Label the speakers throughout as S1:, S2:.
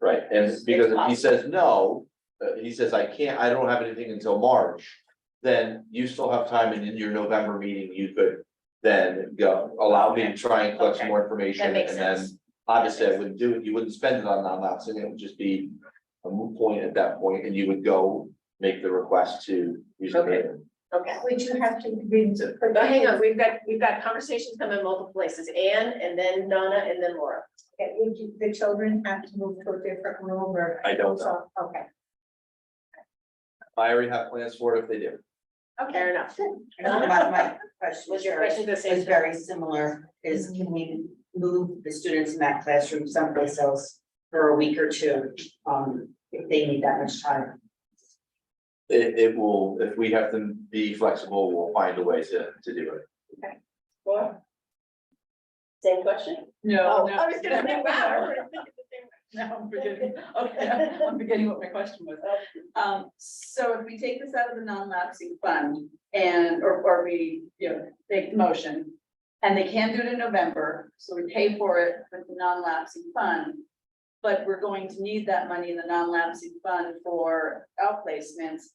S1: Right, and because if he says no, uh, he says, I can't, I don't have anything until March. Then you still have time and in your November meeting, you could then go, allow me to try and collect some more information
S2: That makes
S1: and then.
S2: sense.
S1: Obviously, I wouldn't do it, you wouldn't spend it on non-lapsing, it would just be a moot point at that point, and you would go make the request to use the.
S2: Okay.
S1: grant.
S2: Okay.
S3: Would you have to read the.
S2: But hang on, we've got, we've got conversations coming in multiple places, Anne and then Donna and then Laura.
S3: Okay, would you, the children have to move to a different room or?
S1: I don't know,
S3: So, Okay.
S1: I already have plans for it if they do.
S2: Fair enough.
S4: I thought about my question.
S2: Was your
S4: Sherry,
S2: question the
S4: Is
S2: same?
S4: very similar, is can we move the students in that classroom someplace else for a week or two? Um, if they need that much time.
S1: It, it will, if we have to be flexible, we'll find a way to, to do it.
S2: Laura? Same question?
S5: No,
S2: Oh,
S5: no.
S2: I was gonna say, wow. everybody's thinking the same question.
S5: Now I'm forgetting, okay, I'm forgetting what my question was. Um, so if we take this out of the non-lapsing fund and, or, or we, you know, make the motion. And they can do it in November, so we pay for it with the non-lapsing fund. But we're going to need that money in the non-lapsing fund for outplacements.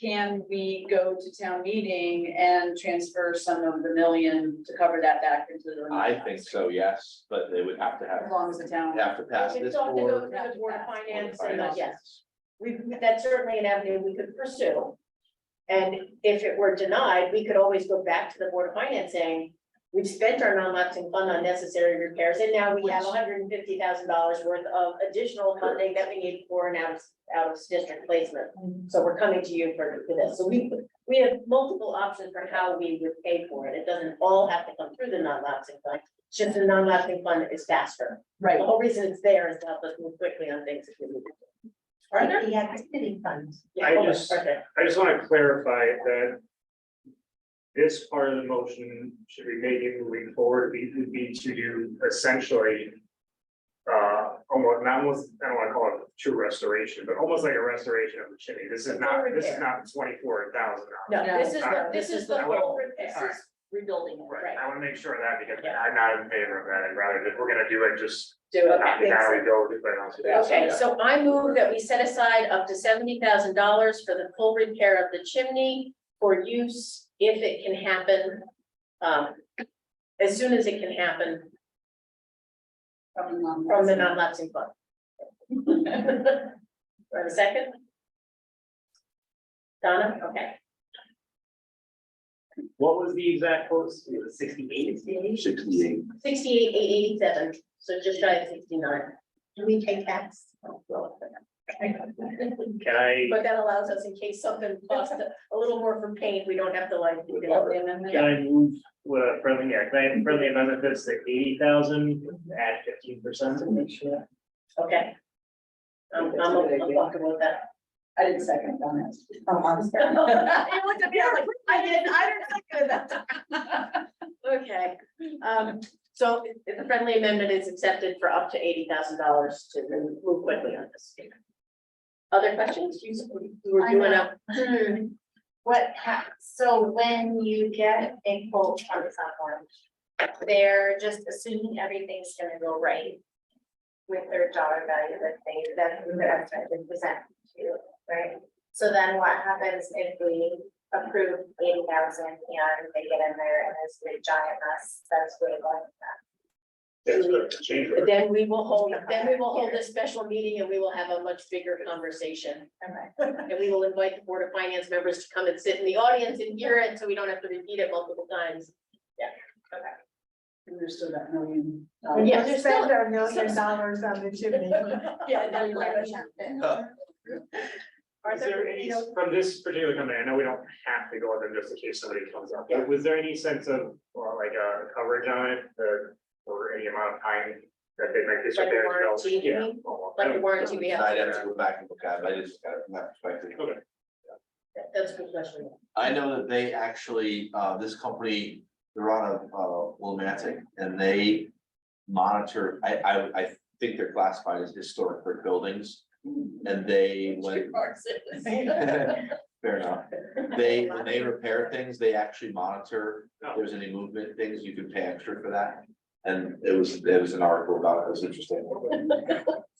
S5: Can we go to town meeting and transfer some of the million to cover that back into the?
S1: I think so, yes, but they would have to
S5: As
S1: have,
S5: long as the town.
S1: have to pass
S2: We'd
S1: this
S2: still have to go
S1: board.
S2: through the board of finance and,
S1: Finance.
S2: the- yes, we, that's certainly an avenue we could pursue. And if it were denied, we could always go back to the board of finance saying, we've spent our non-lapsing fund on necessary repairs, and now we have
S5: Which-
S2: hundred and fifty thousand dollars worth of additional funding that we need for an out, of out of district placement. So we're coming to you for, for this, so we, we have multiple options for how we would pay for it, it doesn't all have to come through the non-lapsing fund. It's Just the non-lapsing fund is faster,
S5: Right.
S2: the whole reason it's there is to help us move quickly on things if we need to.
S3: Are there? The activity funds.
S2: Yeah,
S6: I
S2: hold on,
S6: just-
S2: okay.
S6: I just want to clarify that this part of the motion should be made moving forward, we would be to do essentially uh, almost, not almost, I don't want to call it true restoration, but almost like a restoration of the chimney. This is not, this is not twenty-four thousand dollars.
S2: No, this is, the
S6: No,
S2: this is the
S6: I want-
S2: whole
S5: This
S2: repair.
S5: is rebuilding it,
S6: Right,
S5: right?
S6: I want to make sure of that because
S2: Yeah.
S6: I'm not in favor of that, I'd rather that we're gonna do it just
S2: Do it.
S6: not the guy we go to, but also the outside.
S2: Okay, so I move that we set aside up to seventy thousand dollars for the full repair of the chimney for use if it can happen. Um, as soon as it can happen
S5: From the non-
S2: from the non-lapsing fund. For a second? Donna, okay.
S6: What was the exact post? It was sixty-eight?
S1: Sixty-eight.
S2: Sixty-eight, eight eighty-seven, so just shy of sixty-nine.
S3: Do we pay tax?
S6: Can I?
S2: But that allows us in case something costs a- a little more for paint, we don't have to like. you know,
S5: The amendment.
S6: Can I move with a friendly, yeah, can I have a friendly amendment that's the eighty thousand, add fifteen percent?
S2: Okay. I'm, I'm, I'm comfortable with that.
S5: I didn't second on it.
S4: Um, I'm sorry.
S2: I looked at me, I was like, I didn't, I didn't think of that. Okay, um, so if the friendly amendment is accepted for up to eighty thousand dollars to move quickly on this. Other questions? You you were
S7: I
S2: doing
S7: know.
S2: a,
S7: What hap, so when you get a quote from someone, they're just assuming everything's gonna go right. With their dollar value that they, that their estimate is presented to, you, right? So then what happens if we approve eighty thousand and they get in there and it's a giant mess, that's what it was.
S6: That's what the change order.
S2: then we will hold, then we will hold a special meeting and we will have a much bigger conversation. And we will invite the Board of Finance members to come and sit in the audience and hear it, so we don't have to repeat it multiple times.
S5: And there's still that million.
S2: Yeah.
S5: dollars.
S2: there's still-
S3: Spend our million dollars on the chimney.
S2: Yeah,
S5: that's like a
S2: Are
S6: Is there
S2: there,
S6: any,
S2: you know,
S6: from this particular company, I know we don't have to go with them just in case somebody comes up, but was there any sense of, or like, uh, coverage on it, or, or any amount of time that they might disrepair?
S2: Like a warranty, you
S6: Yeah. Oh,
S2: mean?
S6: Well, I
S2: like the
S6: don't-
S2: warranty we have,
S1: I'd have to go back and look at it, but I just got it from that perspective.
S6: Okay.
S2: that's a good question.
S1: I know that they actually, uh, this company, they're out of, uh, Willimantic, and they monitor, I, I, I think they're classified as historic brick buildings. And they, when, fair enough, they, when they repair things, they actually monitor, if there's any movement, things, you can pay extra for that. And it was, it was an article about it, it was interesting.